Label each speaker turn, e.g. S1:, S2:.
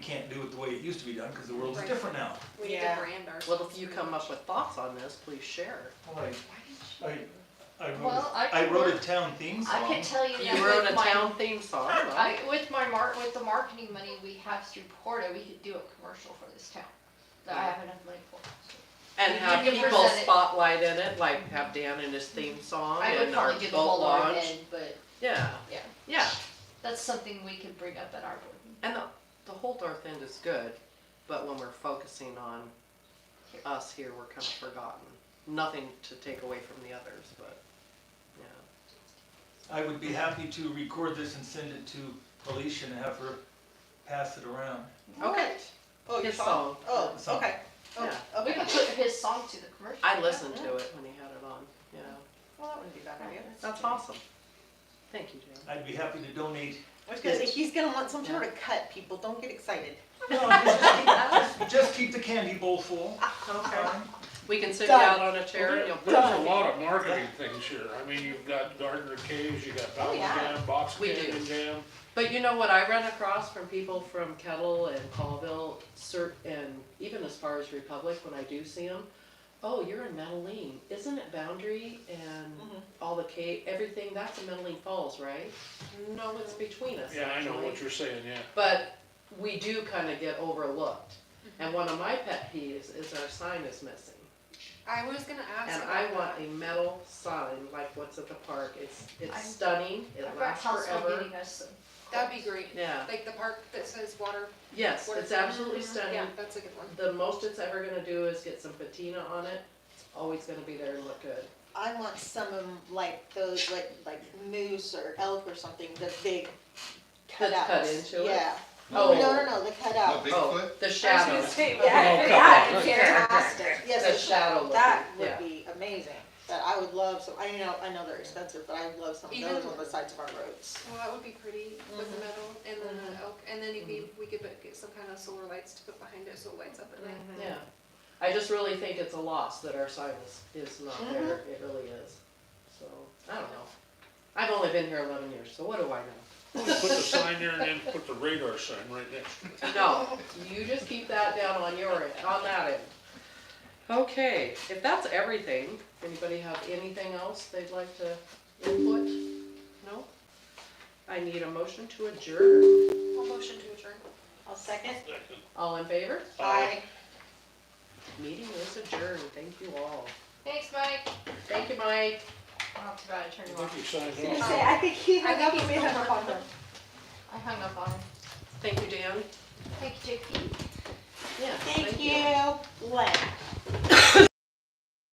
S1: can't do it the way it used to be done, because the world is
S2: Right.
S1: different now.
S2: We need to
S3: Yeah.
S2: brand ourselves.
S3: Well, if you
S2: pretty
S3: come
S2: much.
S3: up with thoughts on this, please share.
S1: Well, I, I, I wrote,
S4: Well, I
S1: a- I
S4: can
S1: wrote a
S4: work-
S1: town theme
S4: I
S1: song.
S4: can tell you that
S3: You wrote a
S4: with my,
S3: town theme song,
S4: I,
S3: huh?
S4: with my mark, with the marketing money we have through Porta, we could do a commercial for this town, that I have enough money for.
S3: and have
S4: You can
S3: people
S4: present it.
S3: spotlight in it, like have Dan in his theme song
S4: I would
S3: Oh, and our
S4: probably give a
S3: boat
S4: whole lot
S3: launch.
S4: in, but
S3: Yeah,
S4: yeah,
S3: yeah,
S4: that's something we could bring up at our board meeting.
S3: and the, the whole North End is good, but when we're focusing on
S4: Here.
S3: us here, we're kind of forgotten. Nothing to take away from the others, but, yeah.
S1: I would be happy to record this and send it to Alicia and have her pass it around.
S3: Okay,
S2: Oh, your
S3: His
S2: song?
S3: song.
S2: Oh,
S1: Song.
S2: okay. Oh,
S3: Yeah.
S4: We
S2: okay.
S4: could put his song to the commercial.
S3: I listened to it when he had it on, yeah.
S2: Well, that wouldn't be a bad idea.
S3: That's awesome. Thank you, Dan.
S1: I'd be happy to donate.
S2: I was gonna say, he's gonna want some sort of cut, people, don't get excited.
S1: No, just keep- Just keep the candy bowl full.
S3: Okay.
S1: Um,
S3: We can sit you
S2: Done.
S3: out on a chair and you'll.
S5: There's a lot of marketing things here. I mean, you've got Gardner Caves, you got Bowman
S2: yeah.
S5: Dam, Box
S3: Oh, We
S5: Canyon
S3: do.
S5: Dam.
S3: But you know what I run across from people from Kettle and Colville, cert, and even as far as Republic, when I do see them, oh, you're in Medellin, isn't it Boundary and
S2: Mhm.
S3: all the Cape, everything, that's in Medellin Falls, right? No, it's between us,
S5: Yeah, I know
S3: actually.
S5: what you're saying, yeah.
S3: But we do kinda get overlooked, and one of my pet peeves is our sign is missing.
S2: I was gonna ask
S3: And I want a metal sign like what's at the park, it's,
S4: I'm-
S3: it's stunning, it
S4: I've got
S3: lasts
S4: Houseville
S3: forever,
S4: getting us some.
S2: That'd be great.
S3: yeah,
S2: Like the park that says water.
S3: yes,
S2: water
S3: it's
S2: fountain.
S3: absolutely stunning.
S2: Yeah, that's a good one.
S3: The most it's ever gonna do is get some patina on it, it's always gonna be there and look good.
S6: I want some of 'em like those, like, like moose or elk or something, the big
S3: That's
S6: cutouts.
S3: cut into it?
S6: Yeah.
S3: Oh.
S6: No, no, no, the cutouts.
S3: Oh, The shadow,
S5: Yeah,
S6: Fantastic. Yes,
S3: the shadow looking,
S6: That would
S3: yeah.
S6: be amazing. That I would love some, I know, I know they're expensive, but I would love some of
S2: Even-
S6: those on the sides of our roads.
S2: Well, that would be pretty with
S3: Mm-hmm.
S2: the metal and then the elk, and then we, we could put- get some kind of solar lights to put behind it so it lights up at night.
S3: Yeah, I just really think it's a loss that our sign is, is not there, it really is, so, I don't know. I've only been here eleven years, so what do I know?
S5: Put the sign there and then put the radar sign right next to it.
S3: No, you just keep that down on your end, on that end. Okay, if that's everything, anybody have anything else they'd like to input? No? I need a motion to adjourn.
S2: I'll motion to adjourn.
S6: I'll second.
S3: All in favor?
S6: Aye.
S3: Meeting is adjourned. Thank you all.
S4: Thanks, Mike.
S3: Thank you, Mike.
S4: I'll have to go out and turn
S5: I
S4: it
S5: think
S4: off.
S5: you signed
S6: I
S5: off.
S6: say, I think he,
S4: I
S6: I think
S4: think
S6: he may
S4: he's
S6: have on them.
S4: I hung up on him.
S3: Thank you, Dan.
S4: Thank you, JP.
S3: Yeah.
S6: Thank you, Len.